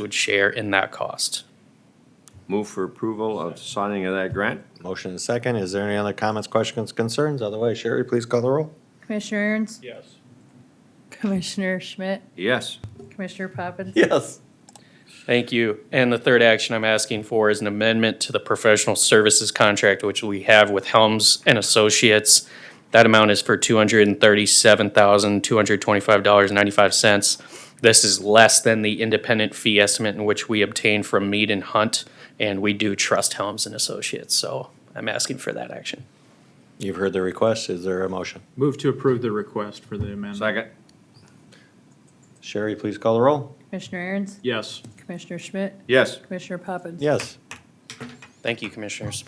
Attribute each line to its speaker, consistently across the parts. Speaker 1: would share in that cost.
Speaker 2: Move for approval of signing of that grant?
Speaker 3: Motion and second. Is there any other comments, questions, concerns? Otherwise, Sherry, please call the roll.
Speaker 4: Commissioner Ernst?
Speaker 5: Yes.
Speaker 4: Commissioner Schmidt?
Speaker 2: Yes.
Speaker 4: Commissioner Poppins?
Speaker 3: Yes.
Speaker 1: Thank you. And the third action I'm asking for is an amendment to the professional services contract, which we have with Helms and Associates. That amount is for two hundred and thirty-seven thousand, two hundred twenty-five dollars and ninety-five cents. This is less than the independent fee estimate in which we obtained from Mead and Hunt, and we do trust Helms and Associates, so I'm asking for that action.
Speaker 3: You've heard the request. Is there a motion?
Speaker 5: Move to approve the request for the amendment.
Speaker 2: Second?
Speaker 3: Sherry, please call the roll.
Speaker 4: Commissioner Ernst?
Speaker 5: Yes.
Speaker 4: Commissioner Schmidt?
Speaker 2: Yes.
Speaker 4: Commissioner Poppins?
Speaker 3: Yes.
Speaker 1: Thank you, Commissioners.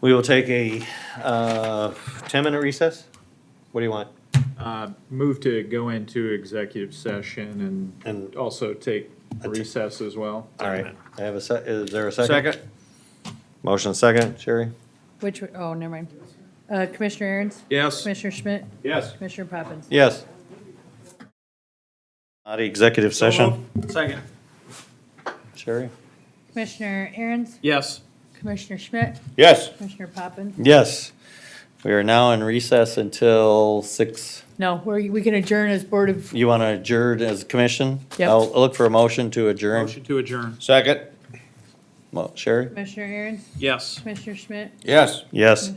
Speaker 3: We will take a uh, 10-minute recess. What do you want?
Speaker 5: Uh, Move to go into executive session
Speaker 3: And-
Speaker 5: and also take recess as well.
Speaker 3: All right. I have a, se- is there a second?
Speaker 2: Second?
Speaker 3: Motion and second. Sherry?
Speaker 4: Which, oh, never mind. Uh, Commissioner Ernst?
Speaker 5: Yes.
Speaker 4: Commissioner Schmidt?
Speaker 2: Yes.
Speaker 4: Commissioner Poppins?
Speaker 3: Yes. Out of executive session.
Speaker 2: Second.
Speaker 3: Sherry?
Speaker 4: Commissioner Ernst?
Speaker 5: Yes.
Speaker 4: Commissioner Schmidt?
Speaker 2: Yes.
Speaker 4: Commissioner Poppins?
Speaker 3: Yes. We are now in recess until 6.
Speaker 4: No, we're, we can adjourn as Board of,
Speaker 3: You want to adjourn as commission?
Speaker 4: Yep.
Speaker 3: I'll I'll look for a motion to adjourn.
Speaker 5: Motion to adjourn.
Speaker 2: Second?
Speaker 3: Mo- Sherry?
Speaker 4: Commissioner Ernst?
Speaker 5: Yes.
Speaker 4: Commissioner Schmidt?
Speaker 2: Yes.
Speaker 3: Yes.